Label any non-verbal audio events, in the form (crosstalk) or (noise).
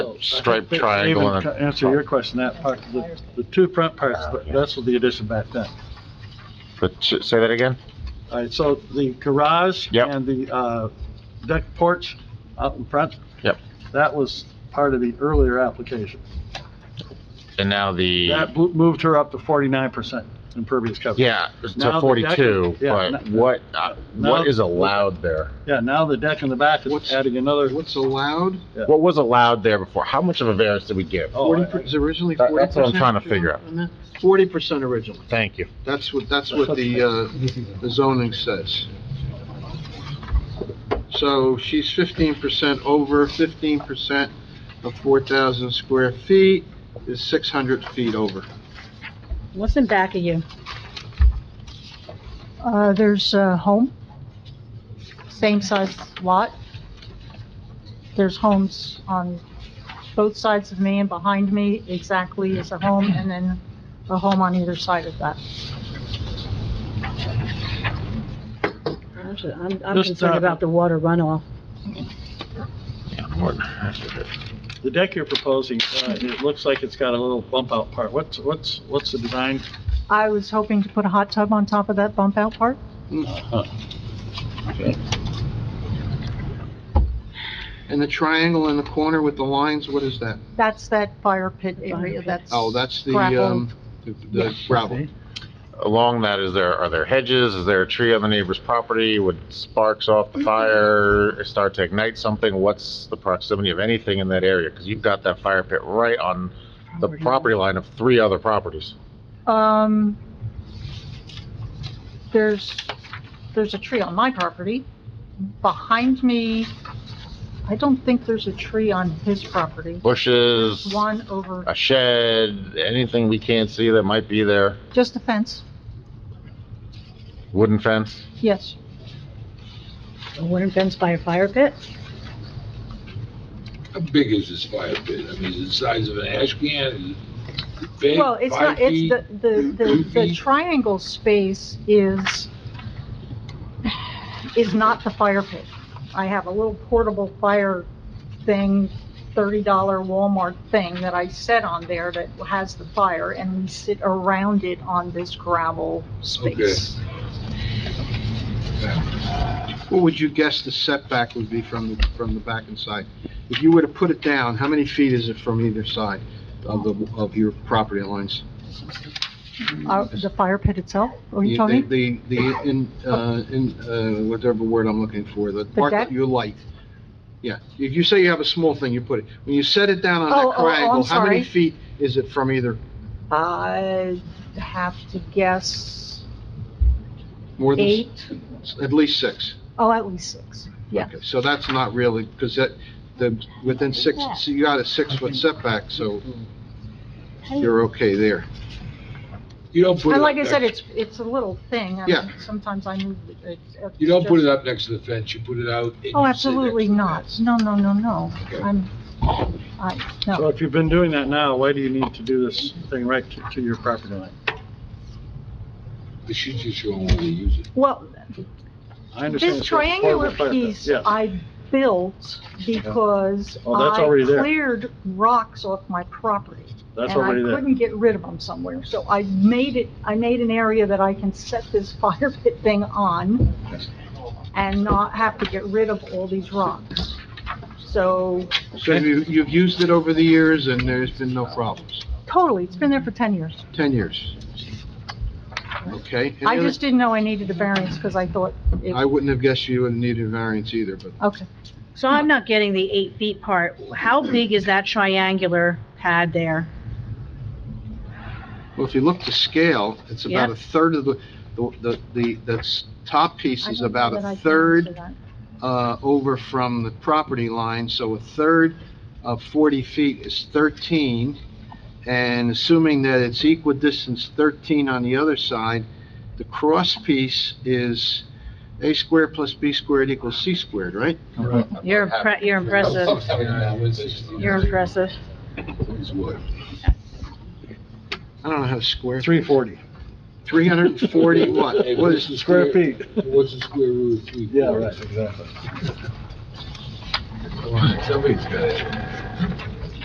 striped But triangle even on to it. Answer your question, that part, the, the two front parts, but that's what the addition back then. But, sh- say that again? All right, so the garage Yep. and the, uh, deck porch out in front. Yep. That was part of the earlier application. And now the, That bo- moved her up to forty-nine percent impervious coverage. yeah, Now to the forty-two, deck- yeah, but n- what, uh, what now- is allowed there? Yeah, now the deck in the back is What's- adding another, What's allowed? Yeah. What was allowed there before? How much of a variance did we give? Oh, Forty, I- is originally That- forty that's percent? what I'm trying to figure out. Forty percent originally. Thank you. That's what, that's what the, uh, the zoning says. So she's fifteen percent over, fifteen percent of four thousand square feet is six hundred feet over. What's in back of you? Uh, there's a home, same size lot. There's homes on both sides of me and behind me exactly is a home, and then a home on either side of that. I'm, just- I'm I'm Just, concerned uh, about the water runoff. the deck you're proposing, uh, it looks like it's got a little bump out part. What's, what's, what's the design? I was hoping to put a hot tub on top of that bump out part. And the triangle in the corner with the lines, what is that? That's that fire pit Fire area, pit. that's. Oh, that's the, Gravel. um, the- the gravel. Along that, is there, are there hedges? Is there a tree on the neighbor's property? Would sparks off the fire start to ignite something? What's the proximity of anything in that area? Because you've got that fire pit right on the property line of three other properties. Um, there's, there's a tree on my property. Behind me, I don't think there's a tree on his property. Bushes, One over, a shed, anything we can't see that might be there, just a fence, wooden fence. yes. A wooden fence by a fire pit? How big is this fire pit? I mean, is it the size of an ash can? Is it big? Well, it's not, Five it's feet? the, the, the, the triangle space is, is not the fire pit. I have a little portable fire thing, thirty dollar Walmart thing that I set on there that has the fire and we sit around it on this gravel space. What would you guess the setback would be from, the from the back and side? If you were to put it down, how many feet is it from either side of the, of your property lines? Uh, the fire pit itself, are you The- talking? The, the, the in, uh, in, uh, whatever word I'm looking for, the part that deck? you like. Yeah, if you say you have a small thing, you put it, when you set it down on Oh, oh, that oh, I'm triangle, how many sorry. feet is it from either, I have to guess more than? s- eight, At least six. oh, at least six, yeah. Okay, So that's not really, because that, the, within six, so you got a six-foot setback, so you're okay there. You don't put it And up like I said, next- it's, it's a little thing. I Yeah. mean, Sometimes I move it. it's You don't put it just- up next to the fence, you put it out. and you sit Oh, next absolutely to the not. fence. No, no, no, no. Okay. I'm, I, So no. if you've been doing that now, why do you need to do this thing right to- to your property line? But She's just showing where they use it. Well, I understand this it's got a portable triangular fire pit. piece Yes. I built because Oh, that's I already there. cleared rocks off my property. That's already And I there. couldn't get rid of them somewhere. So I made it, I made an area that I can set this (laughs) fire pit thing on and not have to get rid of all these rocks. So So you, you've used it over the years and there's been no problems? totally, it's been there for 10 years. Ten years? Okay. I Any other- just didn't know I needed a variance because I thought it, I wouldn't have guessed you would have needed a variance either, but okay. So I'm not getting the eight feet part. How big is that triangular pad there? Well, if you look to scale, it's about Yeah. a third of the, the, the, the the s- top piece I is don't about know that I a can third, answer uh, over from the property line, so a third of 40 feet is 13, and assuming that it's equal distance 13 on the other side, the cross piece is a squared plus b squared equals c squared, right? You're, impre- (laughs) you're impressive. You're impressive. It's what? I don't know how to square, Three forty (laughs) 340 what? Hey, What what's is the square feet. What's the square root of three? Yeah, right, exactly. Come on, somebody's got it.